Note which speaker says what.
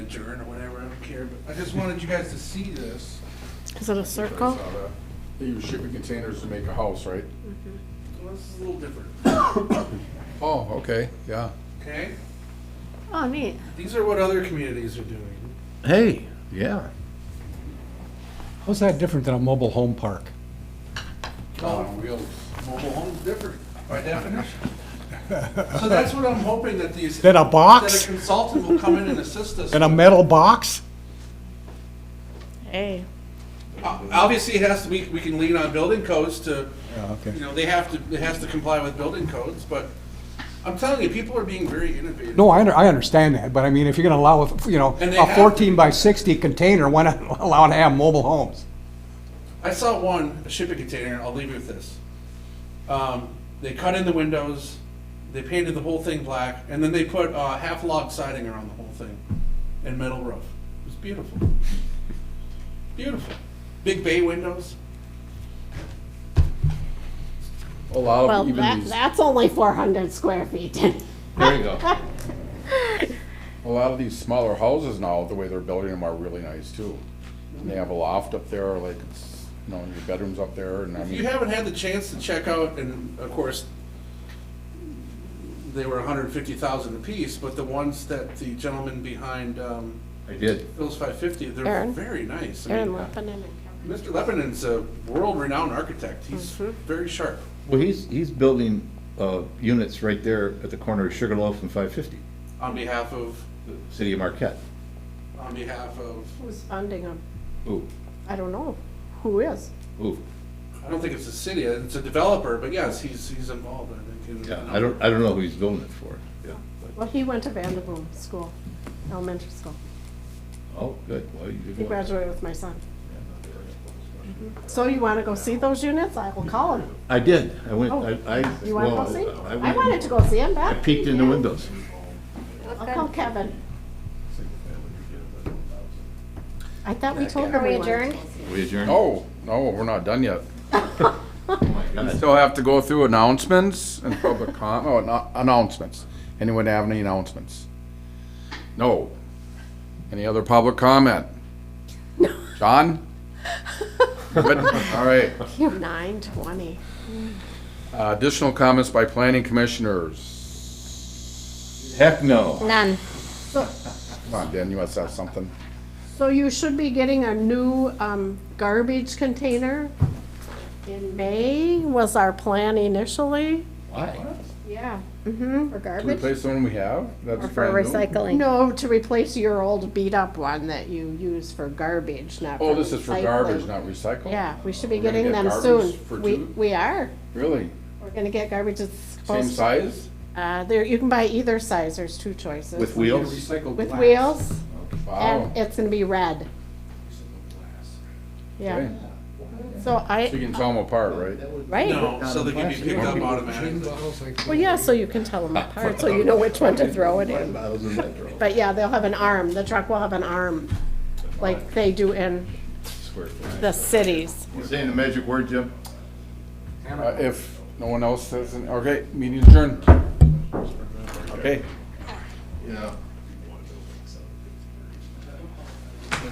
Speaker 1: here, but I just wanted you guys to see this.
Speaker 2: Is it a circle?
Speaker 3: They use shipping containers to make a house, right?
Speaker 1: Well, this is a little different,
Speaker 3: Oh, okay, yeah.
Speaker 1: okay?
Speaker 2: Oh, neat.
Speaker 1: These are what other communities are doing.
Speaker 3: Hey, yeah.
Speaker 4: How's that different than a mobile home park?
Speaker 3: wheels.
Speaker 1: Mobile home's different by definition. So that's what I'm hoping that these.
Speaker 4: Then a
Speaker 1: That a
Speaker 4: box?
Speaker 1: consultant will come in and assist us.
Speaker 4: And a metal box?
Speaker 2: Hey.
Speaker 1: O- Uh, Obviously, it has to, we, we can lean on building codes to,
Speaker 4: Yeah,
Speaker 1: you
Speaker 4: Oh, okay.
Speaker 1: know, they have to, it has to comply with building codes, but I'm telling you, people are being very innovative.
Speaker 4: No, I, under- I understand that, but I mean, if you're gonna allow, a- you know,
Speaker 1: And they
Speaker 4: a
Speaker 1: have-
Speaker 4: fourteen by sixty container, why not allow it to have mobile homes?
Speaker 1: I saw one, a shipping container, I'll leave you with this. Um, they cut in the windows, they painted the whole thing black, and then they put, uh, half log siding around the whole thing and metal roof. It was beautiful. Beautiful. Big bay windows.
Speaker 3: A lot
Speaker 2: Well,
Speaker 3: of even
Speaker 2: that,
Speaker 3: these,
Speaker 2: that's only 400 square feet.
Speaker 3: there you go. A lot of these smaller houses now, the way they're building them are really nice too. And they have a loft up there, like, it's, you know, your bedroom's up there and I
Speaker 1: If you
Speaker 3: mean,
Speaker 1: haven't had the chance to check out, and of course, they were hundred and fifty thousand apiece, but the ones that the gentleman behind, um,
Speaker 3: I did.
Speaker 1: Phil's five fifty, they're
Speaker 2: Aaron?
Speaker 1: very nice. I
Speaker 2: Aaron
Speaker 1: mean,
Speaker 2: Lebanon and
Speaker 1: Mr. Lebanon's a world-renowned architect. He's very sharp.
Speaker 5: Well, he's, he's building uh, units right there at the corner of Sugarloaf and 550,
Speaker 1: On behalf of,
Speaker 5: the city of Marquette.
Speaker 1: on behalf of,
Speaker 2: Who's funding them?
Speaker 5: Ooh,
Speaker 2: I don't know. Who is?
Speaker 5: ooh,
Speaker 1: I don't think it's a city, it's a developer, but yes, he's, he's involved, I think. in-
Speaker 5: yeah, I don't, I don't know who he's building it for. Yeah. but-
Speaker 2: Well, he went to Vanderboom School, elementary school.
Speaker 5: Oh, good, well, you did
Speaker 2: He
Speaker 5: well.
Speaker 2: graduated with my son. So you want to go see those units? I will call him.
Speaker 5: I did, I went,
Speaker 2: Oh,
Speaker 5: I, I.
Speaker 2: You want to
Speaker 5: well,
Speaker 2: go see?
Speaker 5: I
Speaker 2: I
Speaker 5: went-
Speaker 2: wanted to go see him
Speaker 5: I
Speaker 2: back.
Speaker 5: peeked in the windows.
Speaker 2: I'll call Kevin. I thought we told him
Speaker 6: Are we
Speaker 2: we wanted.
Speaker 6: adjourned?
Speaker 5: We adjourned.
Speaker 3: No, no, we're not done yet.
Speaker 5: my God.
Speaker 3: Still have to go through announcements and public com, oh, anno- announcements. Anyone have any announcements? No. Any other public comment? John? Good, all right.
Speaker 2: Nine twenty.
Speaker 3: Uh, Additional comments by planning commissioners.
Speaker 5: Heck no.
Speaker 6: None.
Speaker 3: Come on, Dan, you must have something.
Speaker 2: So you should be getting a new um, garbage container in May, was our plan initially.
Speaker 5: Why?
Speaker 2: Yeah.
Speaker 6: For
Speaker 3: To
Speaker 6: garbage
Speaker 3: Replace the one we have? That's
Speaker 6: or for
Speaker 3: brand new?
Speaker 6: recycling?
Speaker 2: No, to replace your old beat-up one that you use for garbage, not for
Speaker 3: Oh, this is for garbage,
Speaker 2: recycling.
Speaker 3: not recycle?
Speaker 2: Yeah, we should be
Speaker 3: We're gonna
Speaker 2: getting
Speaker 3: get
Speaker 2: them
Speaker 3: garbage
Speaker 2: soon.
Speaker 3: for
Speaker 2: We,
Speaker 3: two?
Speaker 2: we are.
Speaker 3: Really?
Speaker 2: We're gonna get garbage that's
Speaker 3: Same
Speaker 2: supposed.
Speaker 3: size?
Speaker 2: Uh, there, you can buy either size, there's two choices.
Speaker 5: With wheels?
Speaker 2: With wheels,
Speaker 3: Wow.
Speaker 2: and it's gonna be red. Yeah,
Speaker 3: Okay.
Speaker 2: so
Speaker 3: So you
Speaker 2: I,
Speaker 3: can tell them apart, right?
Speaker 2: right,
Speaker 1: No, so they can be picked up automatically.
Speaker 2: well, yeah, so you can tell them apart, so you know which one to throw it in.
Speaker 5: Bottles in that drawer.
Speaker 2: But yeah, they'll have an arm, the truck will have an arm, like they do in
Speaker 5: Swear to God.
Speaker 2: the cities.
Speaker 5: You saying the magic word, Jim?
Speaker 3: Uh, If no one else says, okay, meeting adjourned. Okay.
Speaker 5: Yeah.